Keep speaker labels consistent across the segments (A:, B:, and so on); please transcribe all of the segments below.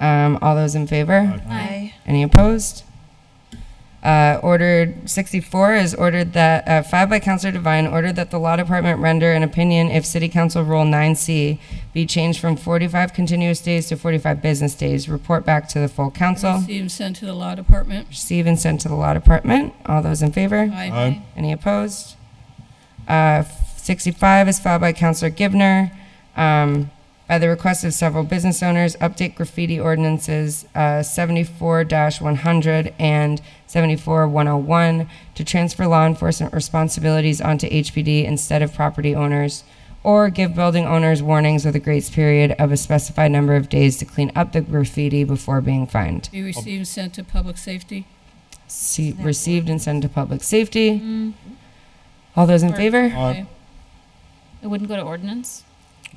A: Um, all those in favor?
B: Aye.
A: Any opposed? Uh, ordered 64 is ordered that, uh, 5 by Counselor Devine, ordered that the Law Department render an opinion if City Council Rule 9C be changed from 45 continuous days to 45 business days. Report back to the full council.
B: Receive and send to the law department.
A: Receive and send to the Law Department. All those in favor?
B: Aye.
A: Any opposed? Uh, 65 is filed by Counselor Givner. Um, By the request of several business owners, update graffiti ordinances uh, 74-100 and 74-101 to transfer law enforcement responsibilities onto HPD instead of property owners, or give building owners warnings with a grace period of a specified number of days to clean up the graffiti before being fined.
B: Be received and sent to public safety.
A: See- Received and sent to public safety. All those in favor?
B: Aye.
C: It wouldn't go to ordinance?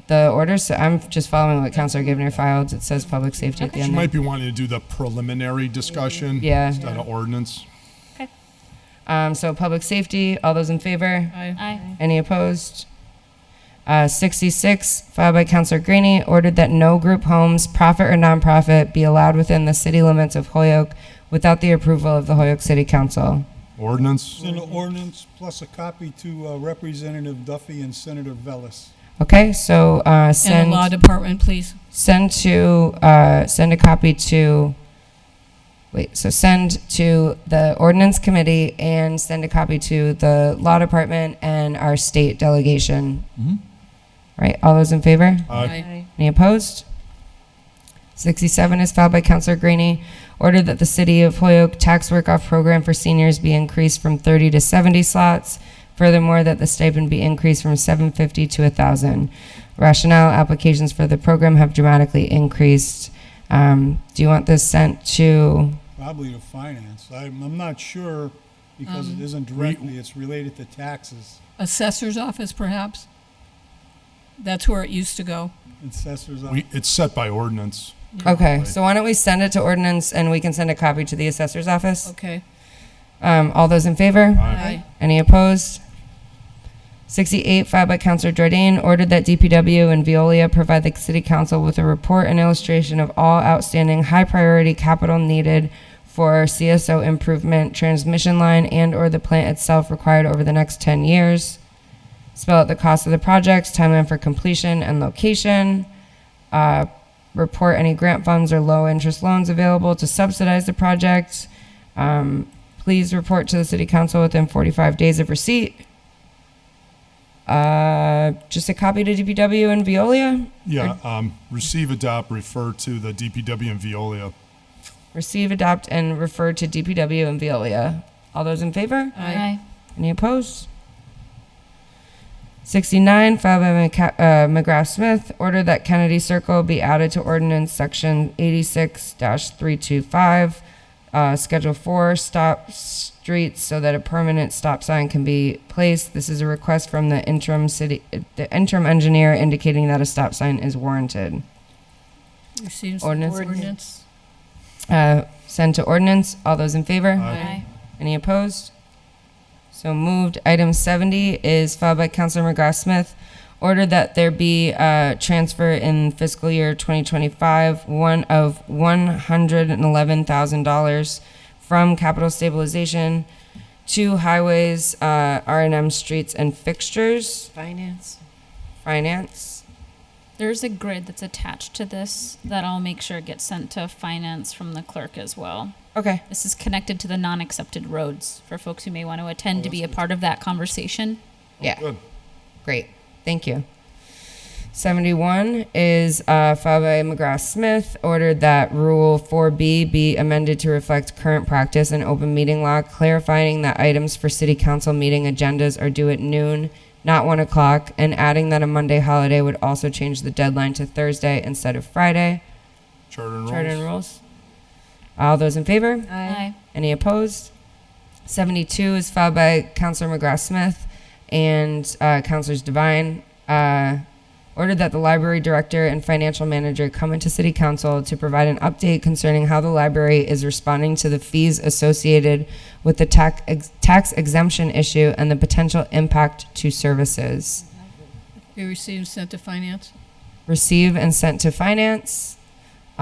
A: The order, so I'm just following what Counselor Givner filed. It says public safety at the
C: Okay.
A: end.
D: You
A: there.
D: might be wanting to do the preliminary discussion.
A: Yeah.
D: Instead of ordinance.
A: Um, so public safety, all those in favor?
B: Aye.
C: Aye.
A: Any opposed? Uh, 66, filed by Counselor Greeny, ordered that no group homes, profit or nonprofit, be allowed within the city limits of Holyoke without the approval of the Holyoke City Council.
D: Ordinance?
E: Send an ordinance plus a copy to uh, Representative Duffy and Senator Vellis.
A: Okay, so uh,
B: And
A: send
B: the law department, please.
A: send to uh, send a copy to. Wait, so send to the ordinance committee and send a copy to the law department and our state delegation. Right, all those in favor?
D: Aye.
A: Any opposed? 67 is filed by Counselor Greeny. Order that the City of Holyoke Tax Work-Off Program for seniors be increased from 30 to 70 slots. Furthermore, that the stipend be increased from 750 to 1,000. Rationale, applications for the program have dramatically increased. Um, Do you want this sent to,
E: Probably to finance. I'm, I'm not sure because it isn't directly, it's related to taxes,
B: Assessor's office, perhaps? That's where it used to go.
E: assessors.
D: We, it's set by ordinance.
A: okay, so why don't we send it to ordinance and we can send a copy to the assessor's office?
B: Okay.
A: Um, All those in favor?
B: Aye.
A: Any opposed? 68, filed by Counselor Jordan, ordered that DPW and Veolia provide the city council with a report and illustration of all outstanding high-priority capital needed for CSO improvement, transmission line, and/or the plant itself required over the next 10 years. Spell out the cost of the projects, timeline for completion, and location. Uh, Report any grant funds or low-interest loans available to subsidize the project. Um, Please report to the city council within 45 days of receipt. Uh, just a copy to DPW and Veolia.
D: Yeah, um, receive, adopt, refer to the DPW and Veolia.
A: Receive, adopt, and refer to DPW and Veolia. All those in favor?
B: Aye.
A: Any opposed? 69, filed by McCa- uh, McGrath Smith, order that Kennedy Circle be added to ordinance section 86-325, uh, Schedule 4, stop streets so that a permanent stop sign can be placed. This is a request from the interim city, uh, the interim engineer indicating that a stop sign is warranted.
B: Receive and send
A: Ordinance.
B: ordinance.
A: Uh, Send to ordinance. All those in favor?
C: Aye.
A: Any opposed? So moved. Item 70 is filed by Councilor McGrath Smith. Order that there be a transfer in fiscal year 2025, one of $111,000 from capital stabilization to highways, uh, R and M streets and fixtures,
F: Finance.
A: finance.
C: There's a grid that's attached to this that I'll make sure gets sent to finance from the clerk as well.
A: Okay,
C: This is connected to the non-accepted roads for folks who may want to attend to be a part of that conversation.
A: yeah.
D: Good.
A: Great, thank you. 71 is uh, filed by McGrath Smith, ordered that Rule 4B be amended to reflect current practice in open meeting law, clarifying that items for city council meeting agendas are due at noon, not 1 o'clock, and adding that a Monday holiday would also change the deadline to Thursday instead of Friday.
D: Charter and
A: Charter and
D: rules.
A: rules. All those in favor?
C: Aye.
A: Any opposed? 72 is filed by Counselor McGrath Smith and uh, Counselors Devine. Uh, ordered that the library director and financial manager come into city council to provide an update concerning how the library is responding to the fees associated with the tax, ex- tax exemption issue and the potential impact to services.
B: Be received and sent to finance.
A: Receive and sent to finance.